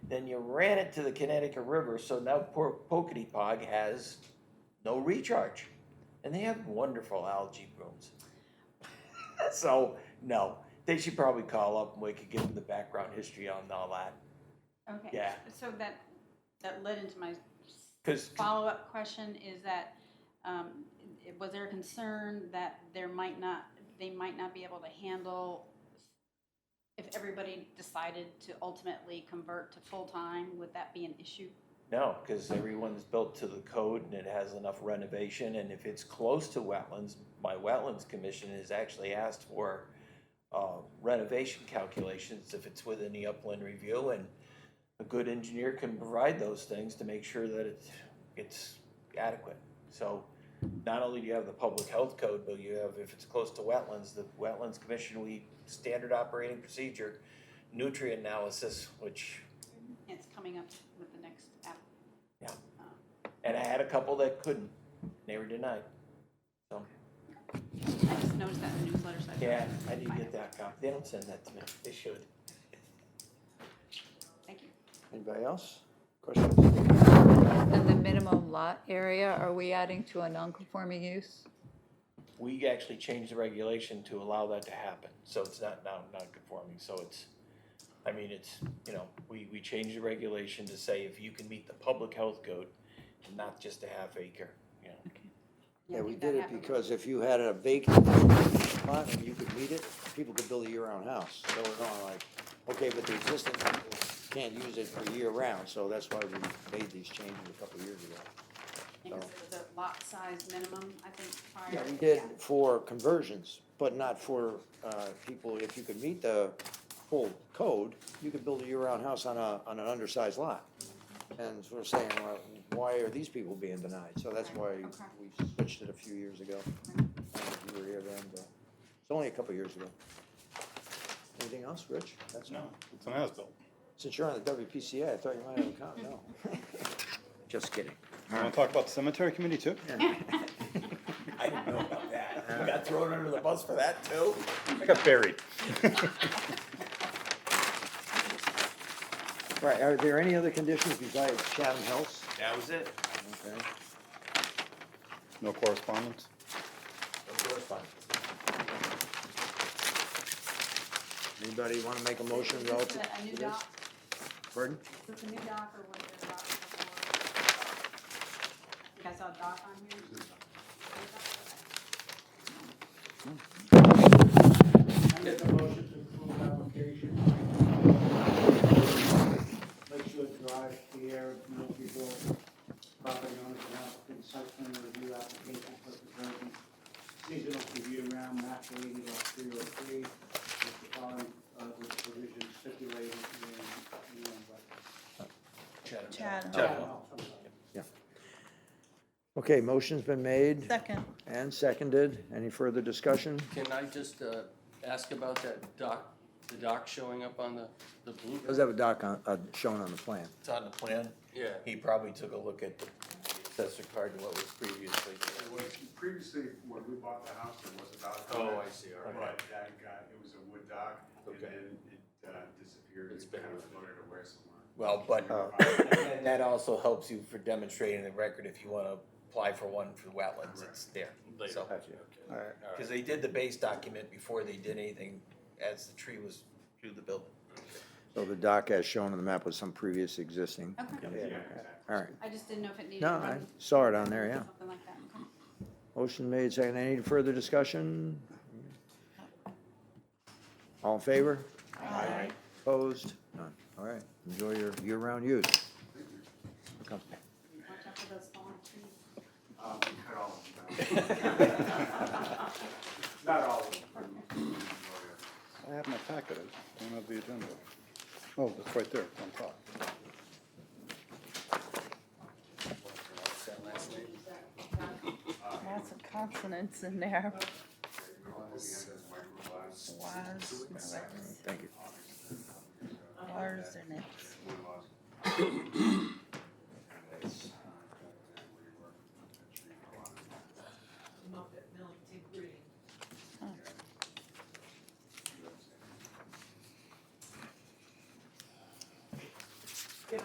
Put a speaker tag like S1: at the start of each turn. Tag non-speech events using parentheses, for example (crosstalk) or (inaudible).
S1: Then you ran it to the Connecticut River, so now poor Pog has no recharge. And they have wonderful algae blooms. (laughs) So, no, they should probably call up and we could give them the background history on all that.
S2: Okay.
S1: Yeah.
S2: So that, that led into my
S1: Cause,
S2: follow-up question is that, um, i- was there a concern that there might not, they might not be able to handle if everybody decided to ultimately convert to full-time, would that be an issue?
S1: no, cause everyone's built to the code and it has enough renovation and if it's close to wetlands, my wetlands commission has actually asked for uh, renovation calculations if it's within the upland review and a good engineer can provide those things to make sure that it's, it's adequate. So not only do you have the public health code, but you have, if it's close to wetlands, the wetlands commission, we standard operating procedure, nutrient analysis, which
S2: It's coming up with the next app.
S1: Yeah.
S2: Um,
S1: And I had a couple that couldn't. They were denied.
S2: I just noticed that in the newsletter, so. thought
S1: Yeah,
S2: I'd
S1: I didn't
S2: find
S1: get
S2: it.
S1: that copy. They don't send that to me. They should.
S2: Thank you.
S3: Anybody else? Questions?
S4: And the minimum lot area, are we adding to a non-conforming use?
S1: We actually changed the regulation to allow that to happen, so it's not now non-conforming, so it's, I mean, it's, you know, we, we changed the regulation to say if you can meet the public health code, and not just a half acre, you know.
S3: Yeah,
S2: I
S3: we
S2: think that
S3: did it
S2: happened.
S3: because if you had a vacant lot and you could meet it, people could build a year-round house. So we're going like, okay, but the existing people can't use it for year-round, so that's why we made these changes a couple of years ago.
S2: Because it was a lot size minimum, I think, prior.
S3: um, Yeah, we did for conversions, but not for, uh, people, if you could meet the full code, you could build a year-round house on a, on an undersized lot. And so we're saying, well, why are these people being denied? So that's why
S2: Right, okay.
S3: we switched it a few years ago. I don't know if you were here then, but it's only a couple years ago. Anything else, Rich? That's all.
S5: No, it's an as-built.
S3: Since you're on the WPCA, I thought you might have a comment, no. (laughs) Just kidding.
S5: You wanna talk about the cemetery committee too?
S1: I didn't know about that. You got thrown under the bus for that too?
S5: I got buried.
S3: Right, are there any other conditions besides Chatham House?
S1: That was it.
S3: Okay.
S5: (laughs) No (laughs) correspondence?
S1: No correspondence.
S3: Anybody want to make
S2: (laughs)
S3: a motion
S2: Is this
S3: relative
S2: a- A new
S3: to this?
S2: doc,
S3: Pardon?
S2: is this a new doc or was there a doc before? I think I saw a doc on here.
S6: I make a motion to approve application. Lakeshore Drive, Pierre, Milkyville, property owners and applicant, site plan review application for conversion, seasonal to year-round, map eighty lot three oh three, with the following, uh, with the provision stipulated in, in, uh,
S7: Chad,
S6: no, I'm sorry.
S3: Okay, motion's been made
S7: second.
S3: and seconded. Any further discussion?
S8: Can I just uh, ask about that dock, the dock showing up on the, the
S3: Does
S8: blueprint?
S3: have a doc on, uh, shown on the plan.
S1: It's on the plan.
S8: Yeah,
S1: He probably took a look at the accessory card and what was previously.
S9: It was previously, when we bought the house, there was a dock. on
S8: Oh,
S9: it,
S8: I see, all right.
S9: But that got, it was a wood dock, and
S8: Okay.
S9: then it uh, disappeared.
S8: It's
S9: It
S8: been
S9: kind of
S8: removed.
S9: floated away somewhere.
S1: Well, but uh,
S3: Oh.
S1: And that also helps you for demonstrating the record if you wanna apply for one for wetlands, it's there.
S8: later.
S1: So,
S8: Okay.
S3: All right.
S8: All
S1: cause they did the base document before they did anything as the tree was through the
S8: (laughs)
S1: building.
S3: So the doc as shown on the map was some previous existing.
S2: Okay,
S3: Yeah,
S9: Yeah, exactly.
S3: All right.
S2: I just didn't know if it needed.
S3: No,
S2: to
S3: I
S2: run
S3: saw it on there, yeah.
S2: Something like that. Okay.
S3: Motion made, second. Any further discussion? All in favor? Aye. Opposed? None. All right. Enjoy your year-round use. Okay.
S2: Watch out for those fallen trees.
S9: Um, we cut all of
S1: (laughs)
S9: them down. Not all of them.
S5: I have my packet, I don't have the agenda. Oh, that's right there, on top.
S7: Lots of consonants in there.
S9: Was,
S7: Was,
S3: Thank you.
S7: are, and it's.
S9: was.